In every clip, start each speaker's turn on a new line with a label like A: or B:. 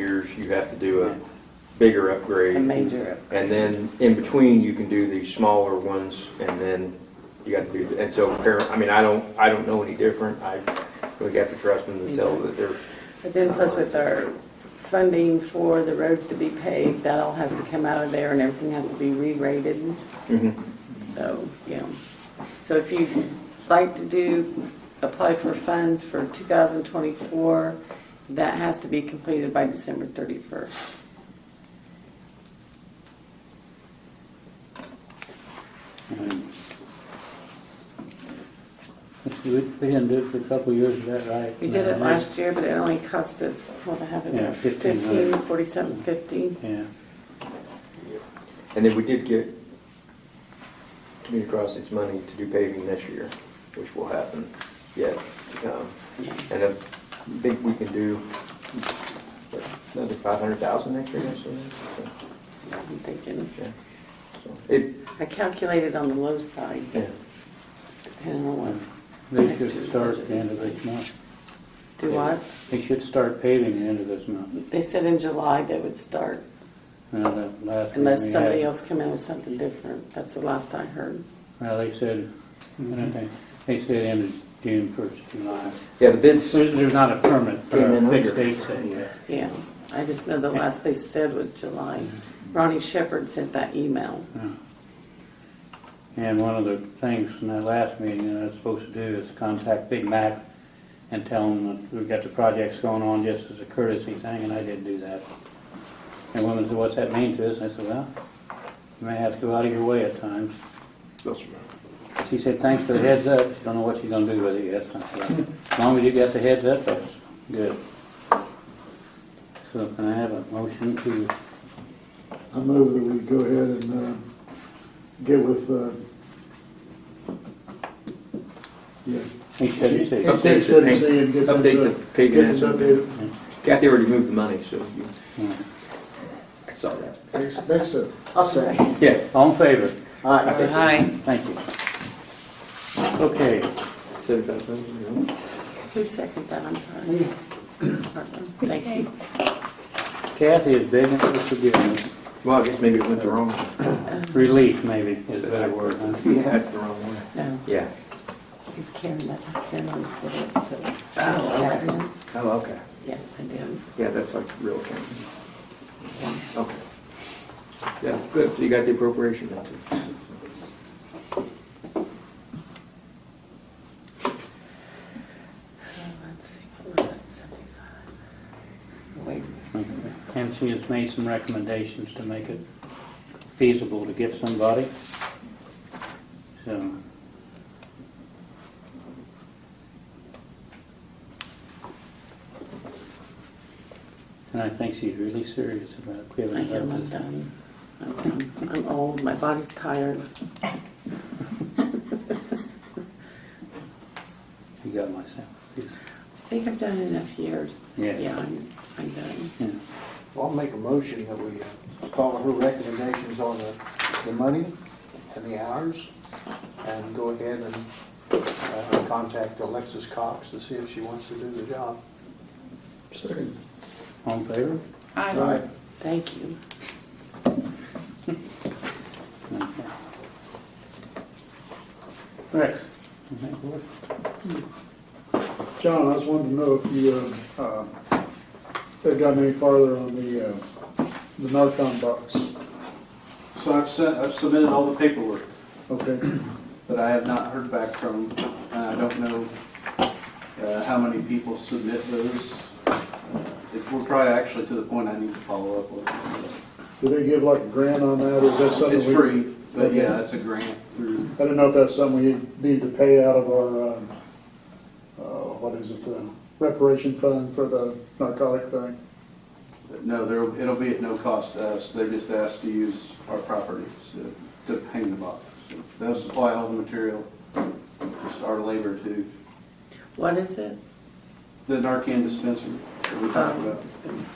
A: years, you have to do a bigger upgrade.
B: A major up.
A: And then in between, you can do these smaller ones, and then you got to do, the- and so, apparent- I mean, I don't, I don't know any different. I really have to trust them to tell that they're,
B: But then plus with our funding for the roads to be paved, that all has to come out of there and everything has to be re-rated.
A: mm-hmm.
B: So, yeah. So if you'd like to do, apply for funds for 2024, that has to be completed by December 31st.
C: We, we didn't do it for a couple of years, is that right?
B: We did it last year, but it only cost us, what, I have it
C: Yeah,
B: there,
C: 15,
B: 15, 47, 50.
C: Yeah,
A: and then we did get community crossings money to do paving this year, which will happen yet to come. And I think we can do what, another five hundred thousand next year, or something. So,
B: I'm thinking,
A: yeah. So, It,
B: I calculated on the low side,
A: yeah.
B: depending on what,
C: they
B: Next year.
C: should start at the end of this month.
B: do what?
C: They should start paving the end of this month.
B: They said in July they would start,
C: Now, that last one we
B: unless somebody
C: had-
B: else come in with something different. That's the last I heard.
C: Well, they said, they- they said end of June, first of July.
A: Yeah, the bids,
C: So there's not a permit for
A: Came in
C: a fixed
A: under.
C: date set yet.
B: Yeah, I just know the last they said was July. Ronnie Shepherd sent that email.
C: Yeah. And one of the things from that last meeting that I was supposed to do is contact Big Mac and tell him that we've got the projects going on just as a courtesy thing, and I didn't do that. And women said, what's that mean to us? And I said, well, you may have to go out of your way at times. She said, thanks for the heads up. She don't know what she's gonna do with it yet. I said, "Well, As long as you got the heads up, that's good. So can I have a motion to,
D: I move that we go ahead and uh, get with, uh, yeah.
C: he said, he said.
D: Update study C and get them to.
A: Update the pig
D: get
A: and
D: them
A: ass.
D: updated.
A: Kathy already moved the money, so you
C: Yeah.
A: I saw that.
D: Thanks, thanks, sir. I'll say.
A: Yeah.
C: All in favor?
E: uh,
B: Hi.
C: Thank you. Okay,
A: Seventy-five thousand,
B: Who seconded that? I'm sorry. Thank you.
C: Kathy is begging for forgiveness,
A: Well, I guess maybe it went the wrong way.
C: relief maybe is a better word, huh?
A: That's the wrong one.
B: No,
A: Yeah.
B: because Karen, that's how Karen always did it, so.
A: Oh, okay. Oh, okay.
B: Yes, I did.
A: Yeah, that's like real accounting. Okay. Yeah, good. So you got the appropriation now too.
B: Let's see, what was that, 75? Wait,
C: And she has made some recommendations to make it feasible to give somebody. So, and I think she's really serious about
B: I
C: giving
B: am,
C: up
B: I'm
C: this.
B: done. I'm done. I'm old, my body's tired.
C: You got myself.
B: I think I've done enough years.
C: Yeah.
B: Yeah, I'm, I'm done.
C: Yeah.
E: Well, I'll make a motion that we uh, follow her recommendations on the, the money and the hours, and go ahead and uh, contact Alexis Cox to see if she wants to do the job.
D: Second.
C: All in favor?
D: Aye.
B: Thank you.
C: Rex? you think we're-
D: John, I just wanted to know if you, uh, uh, had gotten any farther on the, uh, the Narcon box.
F: So I've sent, I've submitted all the paperwork,
D: Okay,
F: but I have not heard back from, and I don't know uh, how many people submit those. Uh, it- We're probably actually to the point I need to follow up with.
D: do they give like a grant on that, or is that something?
F: It's
D: we-
F: free, but
D: Okay.
F: yeah, it's a grant through,
D: I don't know if that's something we need to pay out of our, um, uh, what is it, the reparation fund for the narcotic thing?
F: no, there, it'll be at no cost to us. They're just asked to use our properties to- to hang the box. So They'll supply all the material, just our labor to
B: What is it?
F: the Narcan dispensary that we talked
B: Um,
F: about.
B: dispense-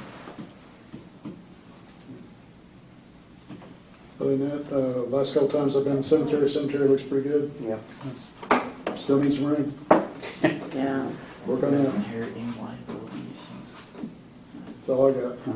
D: Other than that, uh, last couple times I've been in the cemetery, cemetery looks pretty good,
E: Yeah.
D: still needs some room,
B: Yeah,
D: work on that,
G: Inherent in liabilities.
D: that's all I got.